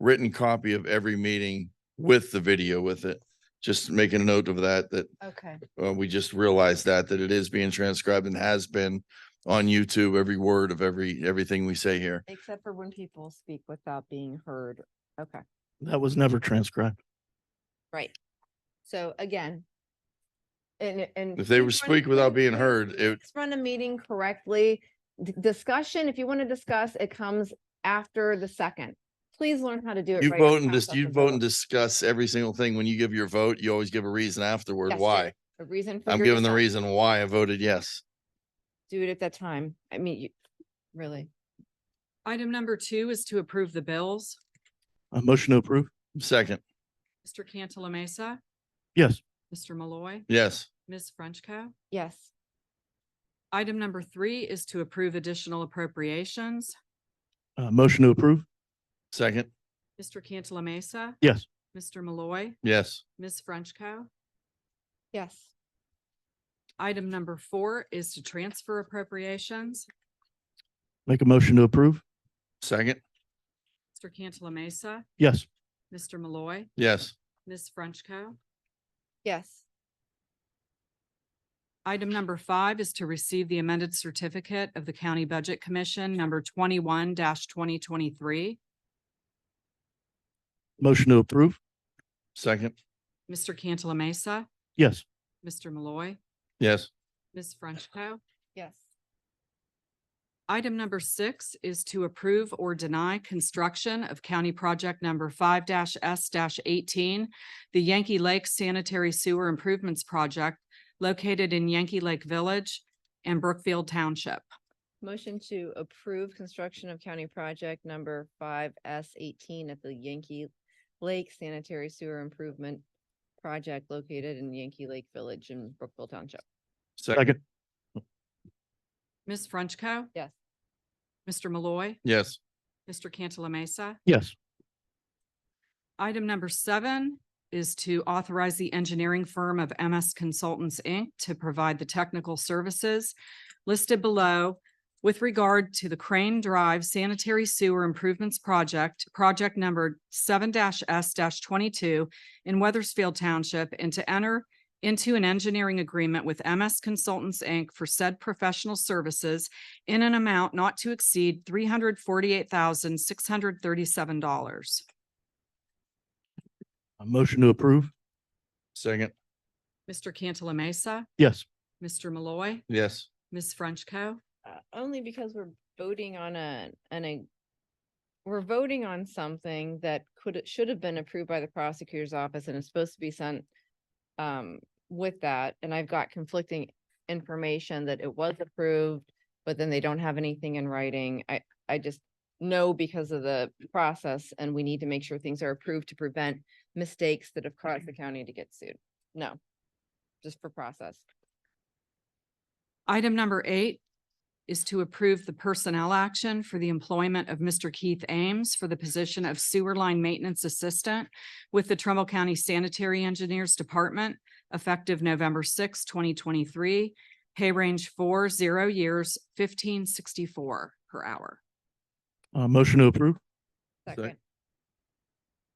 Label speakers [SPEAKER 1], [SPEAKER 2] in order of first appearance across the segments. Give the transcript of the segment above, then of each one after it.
[SPEAKER 1] written copy of every meeting with the video with it. Just making a note of that, that
[SPEAKER 2] Okay,
[SPEAKER 1] uh, we just realized that, that it is being transcribed and has been on YouTube, every word of every, everything we say here.
[SPEAKER 2] except for when people speak without being heard. Okay,
[SPEAKER 3] That was never transcribed.
[SPEAKER 2] right. So again. And, and.
[SPEAKER 1] If they
[SPEAKER 2] please
[SPEAKER 1] were
[SPEAKER 2] run-
[SPEAKER 1] speak without being heard, it,
[SPEAKER 2] Let's Run a meeting correctly. D- Discussion, if you want to discuss, it comes after the second. Please learn how to do it.
[SPEAKER 1] you
[SPEAKER 2] right
[SPEAKER 1] vote and
[SPEAKER 2] across
[SPEAKER 1] just,
[SPEAKER 2] off
[SPEAKER 1] you
[SPEAKER 2] the
[SPEAKER 1] vote and
[SPEAKER 2] vote.
[SPEAKER 1] discuss every single thing. When you give your vote, you always give a reason afterward
[SPEAKER 2] Yes, you
[SPEAKER 1] why.
[SPEAKER 2] A reason. for
[SPEAKER 1] I'm
[SPEAKER 2] your
[SPEAKER 1] giving the
[SPEAKER 2] dissent.
[SPEAKER 1] reason why I voted yes.
[SPEAKER 2] Do it at that time. I mean, you, really.
[SPEAKER 4] Item number two is to approve the bills.
[SPEAKER 3] A motion to approve?
[SPEAKER 1] Second,
[SPEAKER 4] Mr. Cantala Mesa,
[SPEAKER 3] Yes.
[SPEAKER 4] Mr. Malloy,
[SPEAKER 1] yes,
[SPEAKER 4] Ms. Frenchco.
[SPEAKER 2] Yes,
[SPEAKER 4] Item number three is to approve additional appropriations.
[SPEAKER 3] A motion to approve?
[SPEAKER 1] second,
[SPEAKER 4] Mr. Cantala Mesa,
[SPEAKER 3] Yes.
[SPEAKER 4] Mr. Malloy,
[SPEAKER 1] yes,
[SPEAKER 4] Ms. Frenchco.
[SPEAKER 2] yes,
[SPEAKER 4] Item number four is to transfer appropriations.
[SPEAKER 3] Make a motion to approve?
[SPEAKER 1] second,
[SPEAKER 4] Mr. Cantala Mesa,
[SPEAKER 3] Yes.
[SPEAKER 4] Mr. Malloy,
[SPEAKER 1] yes,
[SPEAKER 4] Ms. Frenchco.
[SPEAKER 2] yes,
[SPEAKER 4] Item number five is to receive the amended certificate of the County Budget Commission, number twenty-one twenty twenty-three.
[SPEAKER 3] Motion to approve?
[SPEAKER 1] second,
[SPEAKER 4] Mr. Cantala Mesa,
[SPEAKER 3] Yes.
[SPEAKER 4] Mr. Malloy,
[SPEAKER 1] yes,
[SPEAKER 4] Ms. Frenchco.
[SPEAKER 2] yes,
[SPEAKER 4] Item number six is to approve or deny construction of County Project Number five S eighteen, the Yankee Lake Sanitary Sewer Improvements Project located in Yankee Lake Village and Brookfield Township.
[SPEAKER 2] Motion to approve construction of county project number five S eighteen at the Yankee Lake Sanitary Sewer Improvement Project located in Yankee Lake Village in Brookville Township.
[SPEAKER 1] second,
[SPEAKER 3] Second?
[SPEAKER 4] Ms. Frenchco.
[SPEAKER 2] Yes.
[SPEAKER 4] Mr. Malloy.
[SPEAKER 1] yes,
[SPEAKER 4] Mr. Cantala Mesa.
[SPEAKER 3] Yes.
[SPEAKER 4] Item number seven is to authorize the engineering firm of MS Consultants, Inc. to provide the technical services listed below with regard to the Crane Drive Sanitary Sewer Improvements Project, project number seven S twenty-two in Weathersfield Township, and to enter into an engineering agreement with MS Consultants, Inc. for said professional services in an amount not to exceed three hundred forty-eight thousand, six hundred thirty-seven dollars.
[SPEAKER 3] A motion to approve?
[SPEAKER 1] second,
[SPEAKER 4] Mr. Cantala Mesa,
[SPEAKER 3] Yes.
[SPEAKER 4] Mr. Malloy,
[SPEAKER 1] yes,
[SPEAKER 4] Ms. Frenchco.
[SPEAKER 2] uh, only because we're voting on a, on a, we're voting on something that could, should have been approved by the prosecutor's office and is supposed to be sent um, with that, and I've got conflicting information that it was approved, but then they don't have anything in writing. I, I just know because of the process, and we need to make sure things are approved to prevent mistakes that have caused the county to get sued. No, just for process.
[SPEAKER 4] Item number eight is to approve the personnel action for the employment of Mr. Keith Ames for the position of sewer line maintenance assistant with the Trumbull County Sanitary Engineers Department effective November 6, twenty twenty-three, pay range four, zero years, fifteen sixty-four per hour.
[SPEAKER 3] A Uh, motion to approve?
[SPEAKER 1] Sec-
[SPEAKER 2] Second,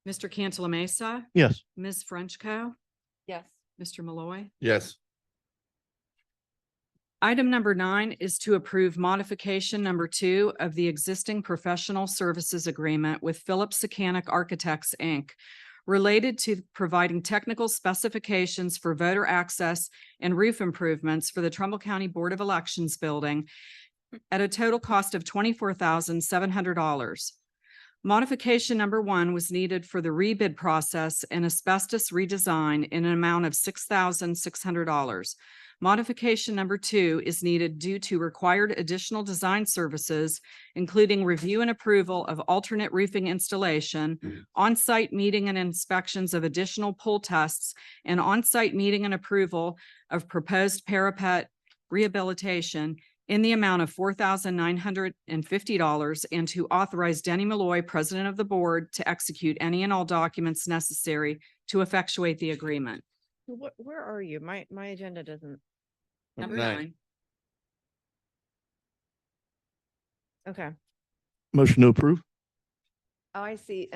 [SPEAKER 4] Mr. Cantala Mesa,
[SPEAKER 3] Yes.
[SPEAKER 4] Ms. Frenchco,
[SPEAKER 2] yes,
[SPEAKER 4] Mr. Malloy.
[SPEAKER 1] yes,
[SPEAKER 4] Item number nine is to approve modification number two of the existing professional services agreement with Phillips Secanic Architects, Inc. Related to providing technical specifications for voter access and roof improvements for the Trumbull County Board of Elections building at a total cost of twenty-four thousand seven hundred dollars. Modification number one was needed for the rebid process and asbestos redesign in an amount of six thousand six hundred dollars. Modification number two is needed due to required additional design services, including review and approval of alternate roofing installation, on-site meeting and inspections of additional pull tests, and on-site meeting and approval of proposed parapet rehabilitation in the amount of four thousand nine hundred and fifty dollars and to authorize Denny Malloy, President of the Board, to execute any and all documents necessary to effectuate the agreement.
[SPEAKER 2] What, where are you? My, my agenda doesn't,
[SPEAKER 1] Number nine.
[SPEAKER 2] okay.
[SPEAKER 3] Motion to approve?
[SPEAKER 2] Oh, I see.